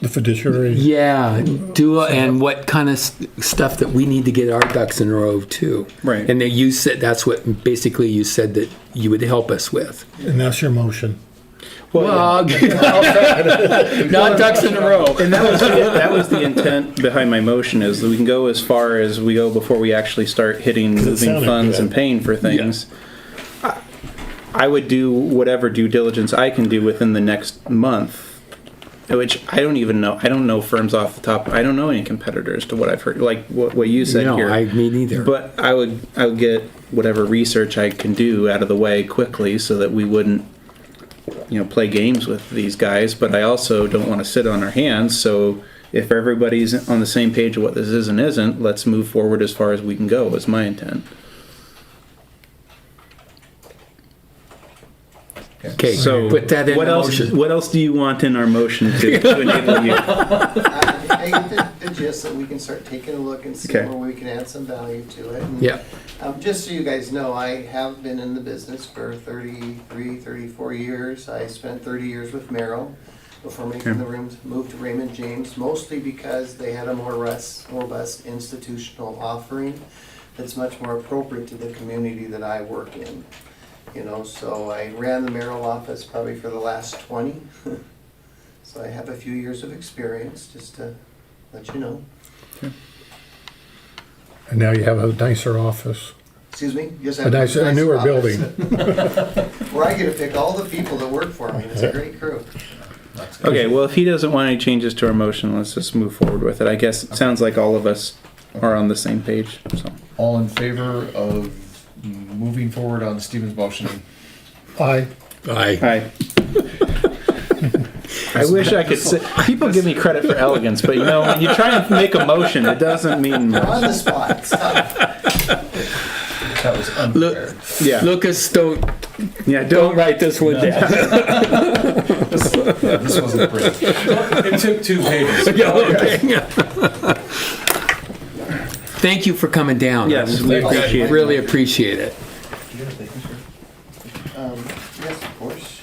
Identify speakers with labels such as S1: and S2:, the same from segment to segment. S1: the fiduciary.
S2: Yeah, do and what kind of s- stuff that we need to get our ducks in a row too.
S3: Right.
S2: And that you said that's what basically you said that you would help us with.
S1: And that's your motion.
S2: Well, not ducks in a row.
S3: And that was, the, that was the intent behind my motion is that we can go as far as we go before we actually start hitting
S1: it
S3: moving
S1: sounded
S3: funds
S1: good.
S3: and paying for things. I, I would do whatever due diligence I can do within the next month, which I don't even know. I don't know firms off the top. I don't know any competitors to what I've heard, like what, what you said
S2: No,
S3: here.
S2: I- me neither.
S3: But I would I would get whatever research I can do out of the way quickly so that we wouldn't you know play games with these guys but i also don't want to sit on our hands so if everybody's on the same page of what this is and isn't let's move forward as far as we can go was my intent
S2: Okay,
S3: so
S2: put that in
S3: what
S2: the
S3: else
S2: motion.
S3: what else do you want in our motion to, to enable you
S4: Uh, I I get the- the gist that we can start taking a look and see
S3: Okay.
S4: where we can add some value to it. And,
S2: Yeah.
S4: Um, just so you guys know, I have been in the business for 33, 34 years. I spent 30 years with Merrill before making the rooms, moved to Raymond James, mostly because they had a more rus- robust institutional offering that's much more appropriate to the community that I work in. You know, so I ran the Merrill office probably for the last 20. So I have a few years of experience, just to let you know.
S1: And now you have a nicer office.
S4: Excuse me? Yes, I
S1: A
S4: have
S1: nicer, a
S4: nice
S1: newer
S4: office.
S1: building.
S4: Where I get to pick all the people that work for me, it's a great crew.
S3: okay well if he doesn't want any changes to our motion let's just move forward with it i guess it sounds like all of us are on the same page so
S5: All in favor of moving forward on Stephen's motion?
S1: Aye.
S2: Aye.
S3: Hi. I wish I could say. People give me credit for elegance, but you know, when you try and make a motion, it doesn't mean
S4: We're
S3: much.
S4: on the spot. It's tough.
S5: That was unfair.
S2: Look,
S3: Yeah.
S2: Lucas, don't
S3: Yeah.
S2: don't write this one down.
S5: Yeah, This wasn't pretty. It took two pages.
S2: Yeah, okay. Thank you for coming down.
S3: Yes, we appreciate it.
S2: Really appreciate it.
S4: Um, Yes, of course.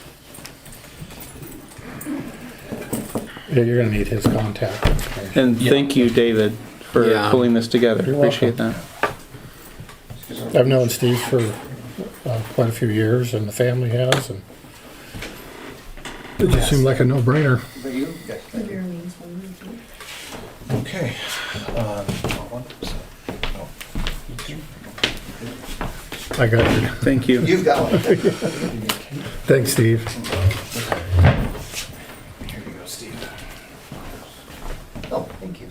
S1: Yeah, you're gonna need his contact. information.
S3: And thank you, David, for
S2: Yeah.
S3: pulling this together.
S1: You're
S3: Appreciate that.
S1: I've known Steve for uh, quite a few years and the family has and it just seemed like a no-brainer.
S4: But you?
S5: Okay. um, one, so, no.
S1: I got you.
S3: Thank you.
S4: You've got one.
S1: Thanks, Steve.
S5: Here you go, Steve.
S4: Oh, thank you.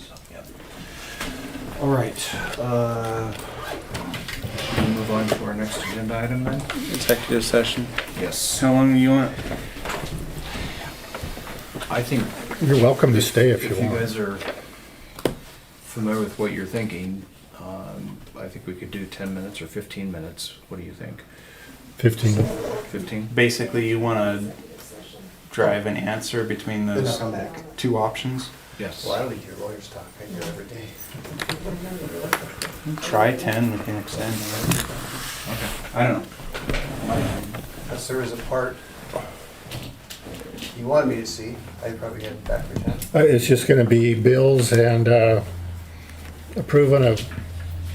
S5: All right. uh, Should we move on to our next agenda item then?
S3: Executive session.
S5: Yes.
S3: How long do you want?
S5: I think
S1: You're welcome to stay if
S5: if
S1: you
S5: you
S1: want.
S5: guys are familiar with what you're thinking, um, I think we could do 10 minutes or 15 minutes. What do you think?
S1: Fifteen. Uh,
S5: 15?
S6: basically you want to drive an answer between those
S4: Come back.
S6: two options.
S5: Yes.
S4: Well, I don't need your lawyer's talk. I hear every day.
S6: Try 10, we can extend. Okay. I don't know.
S4: Unless there is a part you wanted me to see, I probably had it backwards. huh?
S1: Uh, It's just gonna be bills and uh, approving of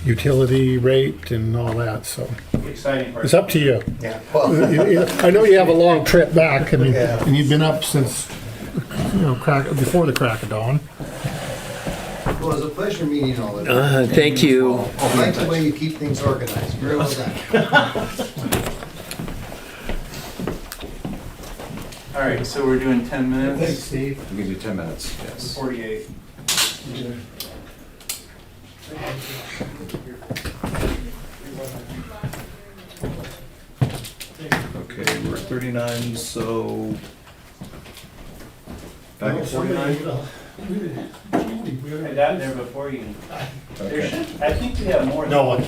S1: utility rate and all that, so
S6: Exciting part.
S1: it's up to you.
S4: Yeah.
S1: You-
S4: Well,
S1: you- I know you have a long trip back, I mean,
S4: Yeah.
S1: and you've been up since, you know, crack, before the crack of dawn.
S4: it was a pleasure meeting all of you.
S1: Uh-huh.
S2: Uh, thank you.
S4: I like the way you keep things organized. Very well done.
S6: All right, so we're doing 10 minutes,
S4: Steve.
S5: We can do 10 minutes, yes.
S6: 48.
S5: Okay, we're at 39, so. Back at 49?
S6: I got there before you.
S5: Okay.
S6: I think we have more.
S1: No,